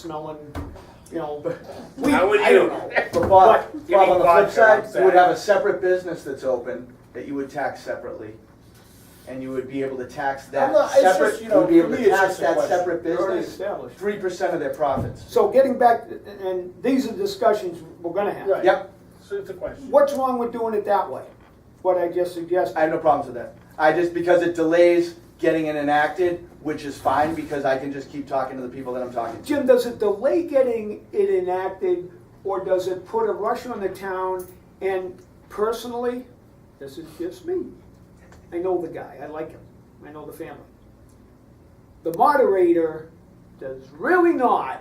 smelling, you know, weed, How would I don't you- know. But But Bob, Bob, on getting the flip vodka side, you would have a outside. separate business that's open that you would tax separately. And you would be able to tax I'm that not- it's just, separate, you you know, would be able for to me, it's tax just a that question. separate They're already business, established. three percent of their profits. So getting back, and these are discussions we're gonna have. Right. Yep, So it's a question. What's wrong with doing it that way? What I just suggested. I have no problems with that. I just, because it delays getting it enacted, which is fine, because I can just keep talking to the people that I'm talking to. Jim, does it delay getting it enacted, or does it put a rush on the town? And personally, this is just me. I know the guy, I like him, I know the family. The moderator does really not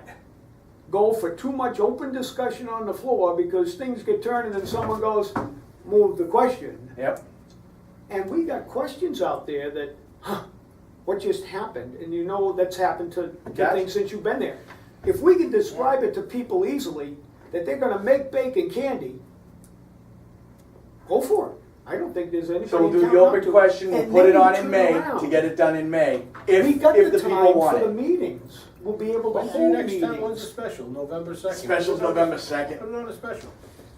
go for too much open discussion on the floor because things get turned and then someone goes, move the question. Yep, And we got questions out there that, huh, what just happened? And you know that's happened to, to Gotcha. things since you've been there. If we can describe it to people easily, that they're gonna make bake and candy, go for it. I don't think there's anybody. so in we'll do town the not open to. question, we'll And put it maybe on in turn May around. to get it done in May, We if, got if the the people time want for the it. meetings. We'll be able to When's your hold next time, when's the meetings. special, November second? Special's November second. Put it on a special.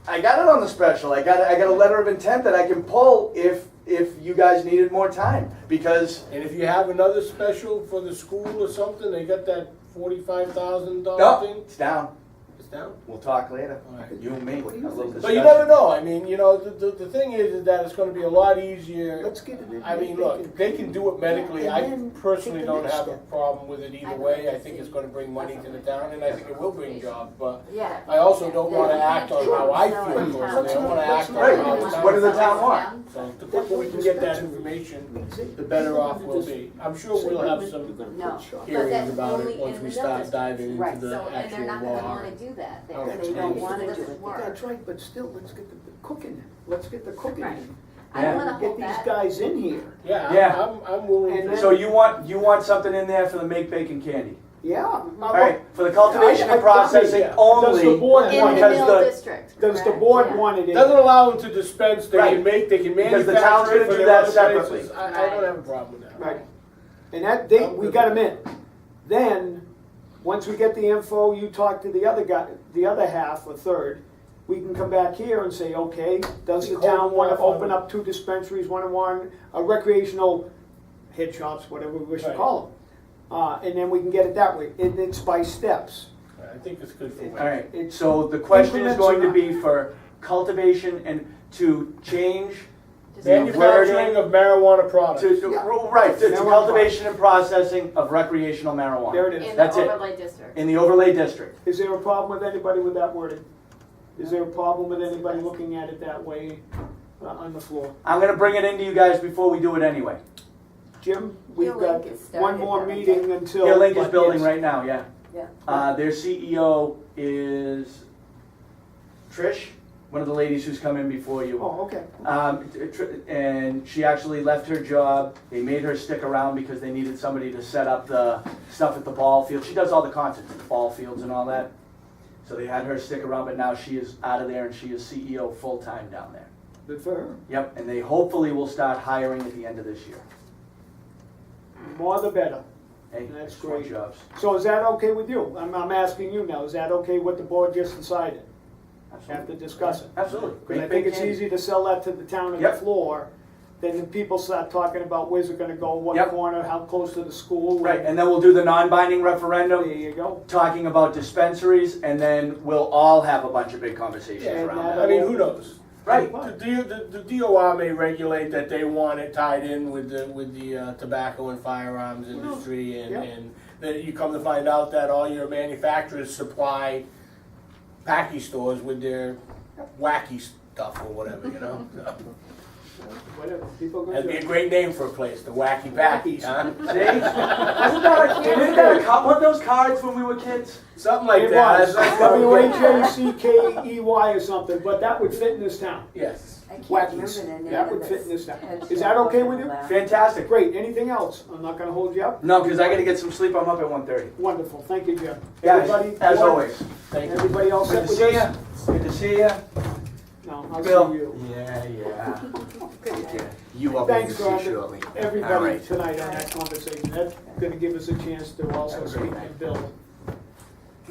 I got it on the special. I got I got a letter of intent that I can pull if if you guys needed more time because And if you have another special for the school or something, they got that forty-five thousand Oh, dollar no, thing, it's down. it's down. We'll talk later. Alright. You and me. A little But you discussion. never know, I mean, you know, the, the, the thing is, is that it's gonna be a lot easier. Let's get it in. I mean, They look, can- they can do it medically, Yeah, and I then personally take the don't next have a step. problem with it either I'd way, like I to think see it's gonna bring money to the town, and I think it will bring jobs, but Yeah. I also don't wanna act on how I Sell feel it. towards it, I wanna act on Right, how the town. what do the town want? So the quicker we can get that information, the better off we'll be. I'm sure we'll have some No. hearings about it once we start diving Right, into the so, and they're actual not gonna law. wanna do that, Oh, they, they it's don't nice. wanna do That's it work. That's right, but still, let's get the cooking in. Let's get the cooking Right. in. I don't wanna Get hold these that, guys in here, Yeah, Yeah. I'm- I'm, I'm willing And to. then- So you want you want something in there for the make bacon candy. yeah. All right, for the cultivation I- I- and processing yeah. Does the only. board in the want, because mill the- district. does the correct? board Yeah. want it in? Doesn't allow them to dispense, they Right. can make, they can Because the manufacture town's gonna it for do their that other separately. places. I, I don't have a problem with that. Right, and that, they, we got them in. Then, once we get the info, you talk to the other guy, the other half or third, we can come back here and say, okay, does the town wanna open up two dispensaries, one and one, a recreational head shops, whatever we wish to call them? Uh, and then we can get it that way, and it's by steps. I think it's good for. It- All women. right. So the question is Implements going to are be for cultivation and to change Just- Manufacturing of marijuana products. to, to- right to, to Marijuana. cultivation and processing of recreational marijuana. There it In is. the That's it. overlay district. In the overlay district. Is there a problem with anybody with that wording? Is there a problem with anybody looking at it that way uh, on the floor? I'm gonna bring it into you guys before we do it anyway. Jim, we've Your got link is started, one more haven't meeting you? until. Yeah, Link is but building yes. right now, yeah. Yeah. Uh, their CEO is Trish, one of the ladies who's come in before you. Oh, okay. Um, t- tr- and she actually left her job. They made her stick around because they needed somebody to set up the stuff at the ball field. She does all the concerts at the ball fields and all that. So they had her stick around, but now she is out of there and she is CEO full-time down there. Good for her. Yep, and they hopefully will start hiring at the end of this year. More the better. Hey, That's it's more great. Jobs. So is that okay with you? I'm, I'm asking you now, is that okay what the board just decided after discussing? Absolutely. Because I Great think big it's candy. easy to sell that to the town on the Yep. floor, then the people start talking about where's it gonna go, what Yep. corner, how close to the school. Right, and then we'll do the non-binding There referendum, you go. talking about dispensaries, and then we'll all have a bunch of big conversations Yeah, around and that. I mean, who knows? Right, The, D- the, the DOR may regulate that they want it tied in with the, with the uh, tobacco and firearms industry and, Yeah. and that you come to find out that all your manufacturers supply packy stores with their wacky stuff or whatever, you know? Whatever, people go. That'd be a great name for a place, the Wacky Packies, huh? see? Isn't that, a- isn't that a, co- weren't those cards when we were kids? Something like It that. was, That's- that's- W H A C K E Y or something, but that would fit in this town. Yes. I can't remember Wackies. the name That of would fit this. in this town. It's Is that okay with you? allowed. Fantastic. Great, anything else? I'm not gonna hold you up. No, because I gotta get some sleep, I'm up at one thirty. Wonderful, thank you, Jim. Everybody, Guys, as board? always, Thank you. Everybody else good set to with this? see ya, good to see ya. No, I'll see Bill. you. Yeah, yeah. You will be Thanks, see Roger. shortly. All Everybody right. tonight on that conversation, that's gonna give us a chance to also Have a speak great to night. Bill